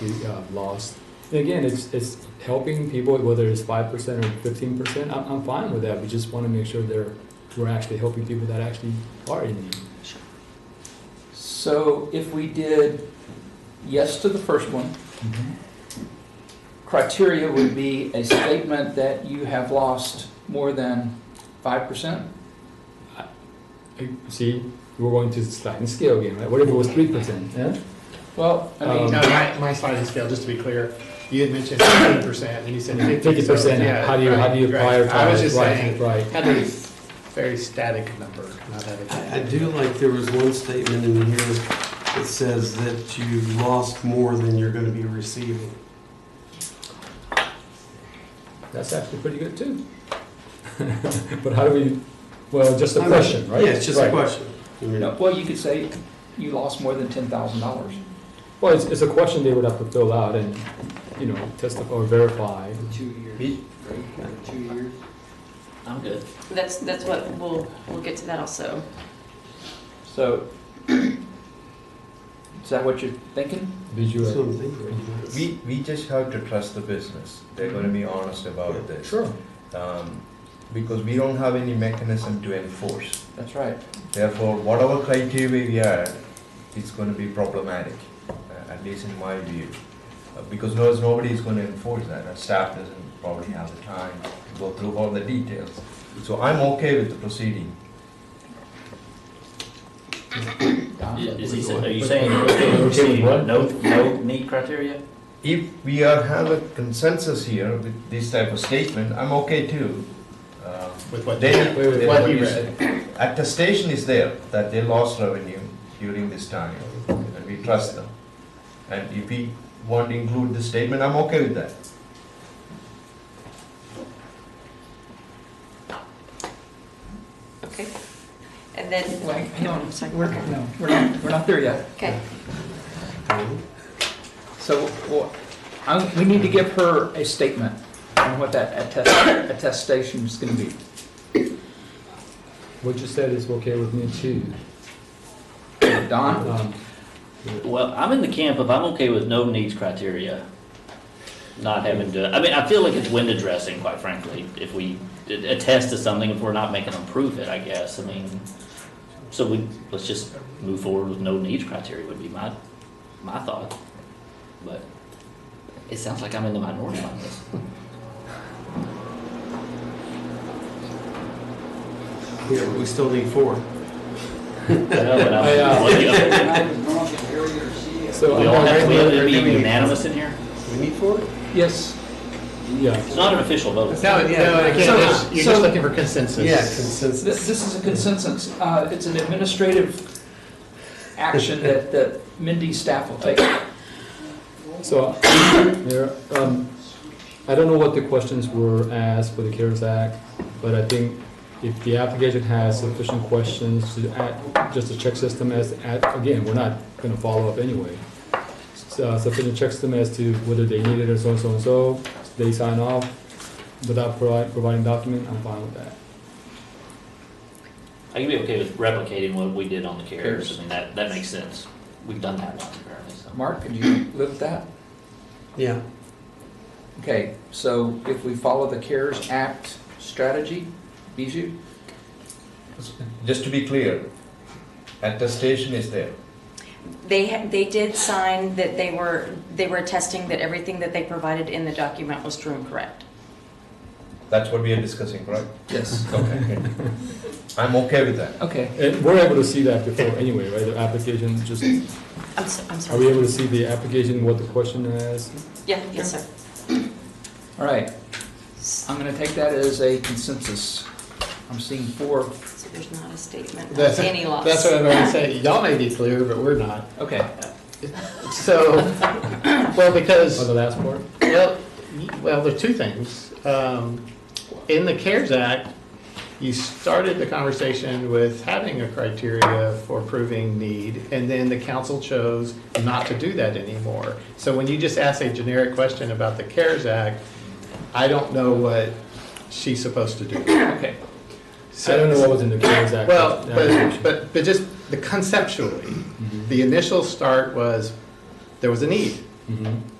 we uh, lost. And again, it's it's helping people whether it's five percent or fifteen percent. I'm, I'm fine with that. We just want to make sure they're we're actually helping people that actually are in need. So if we did yes to the first one, Mm-hmm. criteria would be a statement that you have lost more than five percent? Uh, See, we're going to slide and scale again, right? What if it was three percent? Yeah. Well, I mean, Um, No, my, my slide has failed, just to be clear. You had mentioned fifty percent, and you said fifty. Fifty percent. How do you how do you prioritize? I was just right, saying, right. had a very static number, not having. I I do like there was one statement in here that says that you lost more than you're gonna be receiving. That's actually pretty good too. but how do we? Well, just a I'm- question, right? Yeah, it's just a Right. question. I mean, no, well, you could say you lost more than ten thousand dollars. Well, it's, it's a question they would have to fill out and you know testify or verify. Two years, right? Two years? I'm good. That's, that's what, we'll, we'll get to that also. So is that what you're thinking? Visual. that's what I'm thinking. We, we just have to trust the business. They're going to be honest about this. Sure. Um, because we don't have any mechanism to enforce. That's right. Therefore, whatever criteria we add, it's going to be problematic, uh, at least in my view. Uh, because no, nobody is going to enforce that. Our staff doesn't probably have the time to go through all the details. So I'm okay with the proceeding. Don? Is he, sa- are you saying that we're gonna proceed with no, no meet criteria? If we are, have a consensus here with this type of statement, I'm okay too. Uh, With what? They, they- wait, they- what what you you read. said. attestation is there that they lost revenue during this time, and we trust them. And if we want to include the statement, I'm okay with that. Okay? And then, Wait, hang on, Sorry. we're, no, we're not, we're not there yet. okay, So well, I'm- we need to give her a statement on what that attest- attestation is going to be. What you said is okay with me too. Don? Um, Well, I'm in the camp of I'm okay with no needs criteria. Not having to, I mean, I feel like it's window dressing, quite frankly, if we did attest to something, if we're not making them prove it, I guess, I mean. So we, let's just move forward with no needs criteria would be my, my thought. But it sounds like I'm in the minority on this. Yeah, but we still need four. Yeah, but I, uh, I'm- what the other- so We I'm all all have, right uh, we have with- to be unanimous in here? We need four? Yes? yeah. It's not an official vote. No, no, again, So- it's- you're so- just looking for consensus. Yeah, This, consensus. this is a consensus, uh, it's an administrative action that, that Mindy's staff will take. So, Mayor, um, I don't know what the questions were asked for the CARES Act, but I think if the application has sufficient questions to add, just a check system as, add- again, we're not gonna follow up anyway. So, uh, Sufficient check system as to whether they need it or so and so and so, they sign off without provi- providing document, I'm fine with that. I can be okay with replicating what we did on the carriers. Carriers. I mean, that, that makes sense. We've done that once apparently, so. Mark, could you live with that? Yeah. Okay, so if we follow the CARES Act strategy, Bijou? Just to be clear, attestation is there. they, ha- they did sign that they were, they were attesting that everything that they provided in the document was true and correct. That's what we are discussing, right? Yes. Okay. I'm okay with that. Okay, And we're able to see that before anyway, right, the application, just, I'm, s- I'm are we sorry. able to see the application, what the question is? Yeah, yes, sir. all right, I'm gonna take that as a consensus. I'm seeing four, So there's not a statement of That's- any loss. That's what I'm going to say. Y'all may be clear, but we're not. okay. So, well, because. Or the last part? Well, y- well, there are two things. Um, In the CARES Act, you started the conversation with having a criteria for proving need, and then the council chose not to do that anymore. So when you just ask a generic question about the CARES Act, I don't know what she's supposed to do. Okay, I don't know what was in the CARES Act. Well, Yeah. Mm-hmm. but, but, but just the conceptually, the initial start was, there was a need. Mhm.